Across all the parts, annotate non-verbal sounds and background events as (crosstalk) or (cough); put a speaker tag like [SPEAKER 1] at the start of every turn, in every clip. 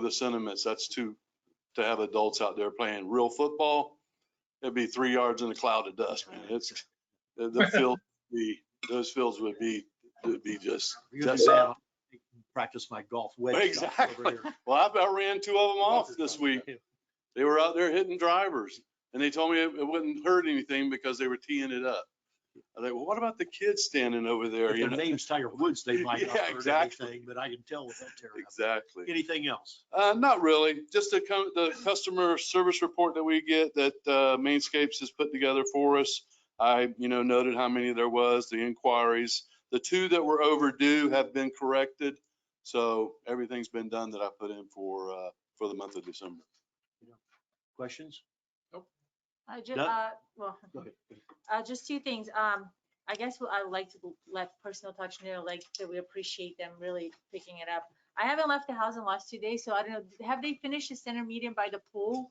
[SPEAKER 1] the sentiments, that's too, to have adults out there playing real football, it'd be three yards in a cloud of dust, man. It's, the, the field, the, those fields would be, would be just,
[SPEAKER 2] You're gonna
[SPEAKER 1] That's-
[SPEAKER 2] say, "I'll Practice my golf wedge. shot over
[SPEAKER 1] Exactly.
[SPEAKER 2] here."
[SPEAKER 1] well, I about ran two of them off this week. They were out there hitting drivers and they told me it it wouldn't hurt anything because they were teeing it up. I think, well, what about the kids standing over there?
[SPEAKER 2] If
[SPEAKER 1] you
[SPEAKER 2] their
[SPEAKER 1] know?
[SPEAKER 2] name's Tiger Woods, they might not
[SPEAKER 1] Yeah,
[SPEAKER 2] hurt
[SPEAKER 1] exactly.
[SPEAKER 2] anything, but I can tell without tearing up.
[SPEAKER 1] Exactly.
[SPEAKER 2] Anything else?
[SPEAKER 1] Uh, not really, just the, com- the customer service report that we get that, uh, Mainscapes has put together for us. I, you know, noted how many there was, the inquiries. The two that were overdue have been corrected. So everything's been done that I put in for, uh, for the month of December.
[SPEAKER 2] Questions?
[SPEAKER 3] I just,
[SPEAKER 2] No?
[SPEAKER 3] uh, well,
[SPEAKER 2] Go ahead.
[SPEAKER 3] uh, just two things. Um, I guess what I like to let personal touch know, like that we appreciate them really picking it up. I haven't left the house in the last two days, so I don't know, have they finished the center median by the pool?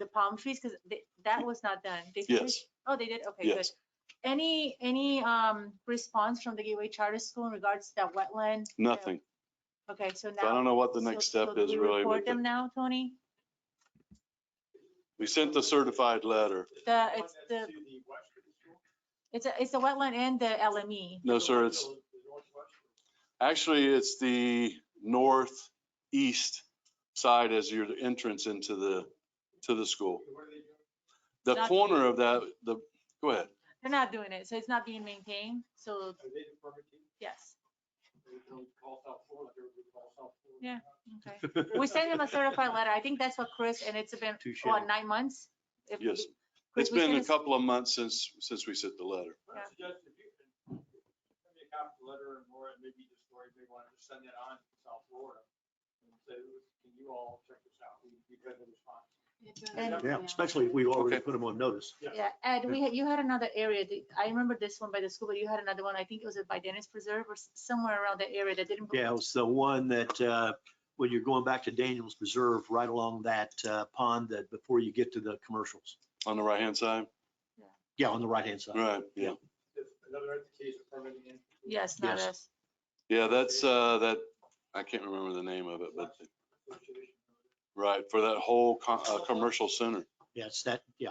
[SPEAKER 3] The palm trees, because that was not done. They
[SPEAKER 1] Yes.
[SPEAKER 3] finished- Oh, they did? Okay, good.
[SPEAKER 1] Yes.
[SPEAKER 3] Any, any, um, response from the Gateway Charter School in regards to that wetland? uh,
[SPEAKER 1] Nothing.
[SPEAKER 3] Okay, so now.
[SPEAKER 1] So I don't know what the
[SPEAKER 3] so-
[SPEAKER 1] next
[SPEAKER 3] so
[SPEAKER 1] step
[SPEAKER 3] do
[SPEAKER 1] is
[SPEAKER 3] we
[SPEAKER 1] really.
[SPEAKER 3] Report
[SPEAKER 1] with
[SPEAKER 3] them
[SPEAKER 1] it.
[SPEAKER 3] now, Tony?
[SPEAKER 1] We sent the certified letter.
[SPEAKER 3] The, it's the, it's a, it's the wetland and the E. LME.
[SPEAKER 1] No, sir, it's, Actually, it's the northeast side as your entrance into the, to the school. The
[SPEAKER 3] Not-
[SPEAKER 1] corner of that, the, go ahead.
[SPEAKER 3] They're not doing it, so it's not being maintained, so yes, Yeah. okay. We sent them a certified letter, I think that's what Chris, and it's been,
[SPEAKER 2] (laughs) Touche.
[SPEAKER 3] what, nine months? If we-
[SPEAKER 1] Yes.
[SPEAKER 3] Chris,
[SPEAKER 1] It's
[SPEAKER 3] we
[SPEAKER 1] been
[SPEAKER 3] sent
[SPEAKER 1] a couple of months since, since we sent the letter.
[SPEAKER 3] Yeah.
[SPEAKER 4] letter and more, and maybe the story, they wanted to send it on to South Florida. And say, can you all check this out? We- We've got the response.
[SPEAKER 3] And-
[SPEAKER 2] Yeah, especially if we already
[SPEAKER 1] Okay.
[SPEAKER 2] put them on notice.
[SPEAKER 3] Yeah, Ed, we, had you had another area, that- I remember this one by the school, but you had another one, I think it was by Dennis Preserve or s- somewhere around that area that didn't.
[SPEAKER 2] Yeah, it's the one that, uh, when you're going back to Daniels Preserve, right along that uh, pond that, before you get to the commercials.
[SPEAKER 1] On the right-hand side?
[SPEAKER 2] Yeah, on the right-hand side.
[SPEAKER 1] Right, yeah.
[SPEAKER 4] If Another entity is permitting in.
[SPEAKER 3] Yes, not
[SPEAKER 2] Yes.
[SPEAKER 3] us.
[SPEAKER 1] Yeah, that's, uh, that, I can't remember the name of it, but, right, for that whole co- uh, commercial center.
[SPEAKER 2] Yeah, it's that, yeah.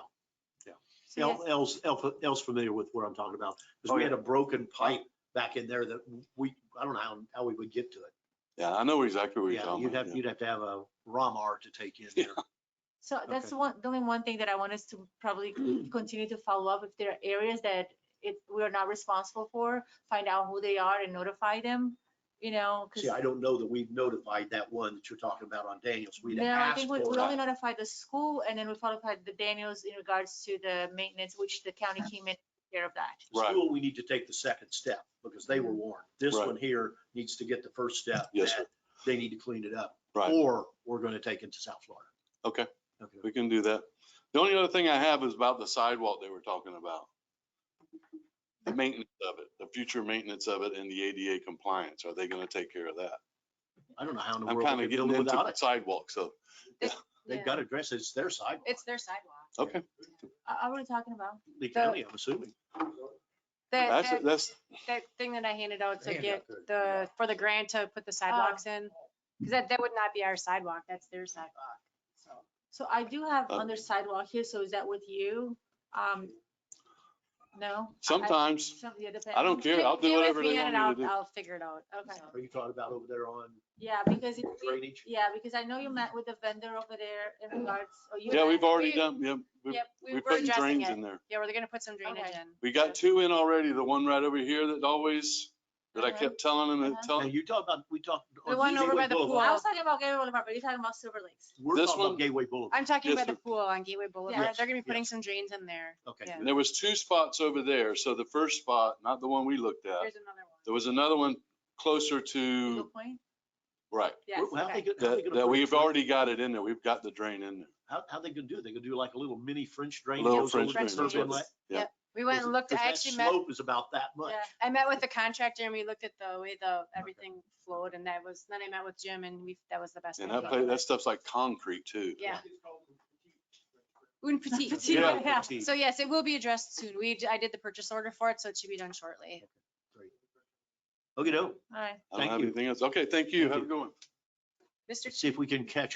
[SPEAKER 3] So
[SPEAKER 2] El-
[SPEAKER 3] yes,
[SPEAKER 2] El's, El- El's familiar with what I'm talking about.
[SPEAKER 1] Oh,
[SPEAKER 2] Because we
[SPEAKER 1] yeah.
[SPEAKER 2] had a broken pipe back in there that we, I don't know how, how we would get to it.
[SPEAKER 1] Yeah, I know exactly where you're
[SPEAKER 2] Yeah,
[SPEAKER 1] talking
[SPEAKER 2] you'd
[SPEAKER 1] about.
[SPEAKER 2] have,
[SPEAKER 1] yeah.
[SPEAKER 2] you'd have to have a ROMR to take in there.
[SPEAKER 3] So that's
[SPEAKER 2] okay.
[SPEAKER 3] the one, the only one thing that I want us to
[SPEAKER 1] (clears throat)
[SPEAKER 3] probably continue to follow up, if there are areas that it, we are not responsible for, find out who they are and notify them, you know, because.
[SPEAKER 2] See, I don't know that we've notified that one that you're talking about on Daniels. We'd
[SPEAKER 3] No, I
[SPEAKER 2] asked
[SPEAKER 3] think we
[SPEAKER 2] for
[SPEAKER 3] we
[SPEAKER 2] it.
[SPEAKER 3] only notified the school and then we notified the Daniels in regards to the maintenance, which the county came in care of that.
[SPEAKER 2] The
[SPEAKER 1] Right.
[SPEAKER 2] School, we need to take the second step because they were warned. This
[SPEAKER 1] Right.
[SPEAKER 2] one here needs to get the first step.
[SPEAKER 1] Yes, sir.
[SPEAKER 2] that They need to clean it up.
[SPEAKER 1] Right.
[SPEAKER 2] Or we're going to take it to South Florida.
[SPEAKER 1] Okay.
[SPEAKER 2] Okay.
[SPEAKER 1] We can do that. The only other thing I have is about the sidewalk they were talking about. The maintenance of it, the future maintenance of it and the ADA compliance. Are they gonna take care of that?
[SPEAKER 2] I don't know how in the
[SPEAKER 1] I'm
[SPEAKER 2] world
[SPEAKER 1] kind
[SPEAKER 2] we
[SPEAKER 1] of
[SPEAKER 2] could
[SPEAKER 1] getting
[SPEAKER 2] do
[SPEAKER 1] into
[SPEAKER 2] without
[SPEAKER 1] the
[SPEAKER 2] it.
[SPEAKER 1] sidewalk, so,
[SPEAKER 2] They've got to address it. It's their sidewalk.
[SPEAKER 5] It's their sidewalk.
[SPEAKER 1] okay.
[SPEAKER 3] Are, are we talking about?
[SPEAKER 2] Lee County, I'm assuming.
[SPEAKER 5] That,
[SPEAKER 1] That's,
[SPEAKER 5] that,
[SPEAKER 1] that's,
[SPEAKER 5] that thing that I handed out to
[SPEAKER 2] Hand
[SPEAKER 5] get
[SPEAKER 2] out there.
[SPEAKER 5] the, for the grant to put the sidewalks in, because that, that would not be our sidewalk, that's their sidewalk, so.
[SPEAKER 3] So I do have
[SPEAKER 1] Uh,
[SPEAKER 3] under sidewalk here, so is that with you? Um, no?
[SPEAKER 1] sometimes,
[SPEAKER 3] Some, yeah,
[SPEAKER 1] I don't care. I'll do
[SPEAKER 5] Get with
[SPEAKER 1] whatever they
[SPEAKER 5] me
[SPEAKER 1] want
[SPEAKER 5] and
[SPEAKER 1] me to
[SPEAKER 5] I'll-
[SPEAKER 1] do.
[SPEAKER 5] I'll figure it out.
[SPEAKER 3] Okay,
[SPEAKER 2] Are you talking about over there on
[SPEAKER 3] yeah, because, it-
[SPEAKER 2] drainage?
[SPEAKER 3] yeah, because I know you met with the vendor over there in regards, or you.
[SPEAKER 1] Yeah,
[SPEAKER 3] met-
[SPEAKER 1] we've already
[SPEAKER 5] we-
[SPEAKER 1] done, yeah, we-
[SPEAKER 5] Yep, we
[SPEAKER 1] we're
[SPEAKER 5] were
[SPEAKER 1] putting
[SPEAKER 5] addressing
[SPEAKER 1] drains
[SPEAKER 5] it.
[SPEAKER 1] in there.
[SPEAKER 5] Yeah, we're gonna put some drainage
[SPEAKER 3] Okay.
[SPEAKER 5] in.
[SPEAKER 1] We got two in already, the one right over here that always, that I
[SPEAKER 3] Uh-huh.
[SPEAKER 1] kept telling him, and
[SPEAKER 3] Uh-huh.
[SPEAKER 2] Now,
[SPEAKER 1] telling,
[SPEAKER 2] you talked about, we talked.
[SPEAKER 5] The
[SPEAKER 2] on
[SPEAKER 5] one over
[SPEAKER 2] Gateway
[SPEAKER 5] by the
[SPEAKER 2] Boulevard.
[SPEAKER 3] I was talking about Gary Boulevard, but you're talking about Silver Lakes.
[SPEAKER 2] We're
[SPEAKER 1] This
[SPEAKER 2] talking
[SPEAKER 1] one-
[SPEAKER 2] about Gateway Boulevard.
[SPEAKER 5] I'm talking
[SPEAKER 1] Yes,
[SPEAKER 5] about the
[SPEAKER 1] sir.
[SPEAKER 5] pool on Gateway Boulevard. They're gonna be putting
[SPEAKER 2] yes.
[SPEAKER 5] some drains in there.
[SPEAKER 2] Okay.
[SPEAKER 5] Yeah.
[SPEAKER 1] and there was two spots over there. So the first spot, not the one we looked at,
[SPEAKER 5] There's another one.
[SPEAKER 1] there was another one closer to,
[SPEAKER 3] Eagle Point?
[SPEAKER 1] right,
[SPEAKER 3] Yes,
[SPEAKER 2] Well, How they
[SPEAKER 3] okay.
[SPEAKER 2] gonna- how they
[SPEAKER 1] that,
[SPEAKER 2] gonna
[SPEAKER 1] that
[SPEAKER 2] put a
[SPEAKER 1] we've
[SPEAKER 2] drain-
[SPEAKER 1] already got it in there. We've got the drain in there.
[SPEAKER 2] How, how they gonna do? They gonna do like a little mini French drain?
[SPEAKER 1] Little
[SPEAKER 2] goes over
[SPEAKER 1] French
[SPEAKER 2] the
[SPEAKER 1] drain, that's
[SPEAKER 2] curb
[SPEAKER 1] what
[SPEAKER 2] inlet?
[SPEAKER 5] We went and looked,
[SPEAKER 2] Because
[SPEAKER 5] I
[SPEAKER 2] that
[SPEAKER 5] actually met,
[SPEAKER 2] Slope is about that much.
[SPEAKER 5] (laughs)
[SPEAKER 3] Yeah.
[SPEAKER 5] I met with the contractor and we looked at the way the, everything flowed and that was, then I met with Jim and we, that was the best.
[SPEAKER 1] And
[SPEAKER 5] idea.
[SPEAKER 1] that, pla- that stuff's like concrete too.
[SPEAKER 5] Yeah. Un petit.
[SPEAKER 3] Petite,
[SPEAKER 1] Yeah.
[SPEAKER 3] yeah.
[SPEAKER 2] Petite.
[SPEAKER 5] So yes, it will be addressed soon. We, d- I did the purchase order for it, so it should be done shortly.
[SPEAKER 2] Okey-doke.
[SPEAKER 3] All right.
[SPEAKER 1] I don't
[SPEAKER 2] Thank
[SPEAKER 1] have
[SPEAKER 2] you.
[SPEAKER 1] anything else. Okay, thank you.
[SPEAKER 2] Thank
[SPEAKER 1] Have a
[SPEAKER 2] you.
[SPEAKER 1] good one.
[SPEAKER 5] Mr.
[SPEAKER 2] see if we can catch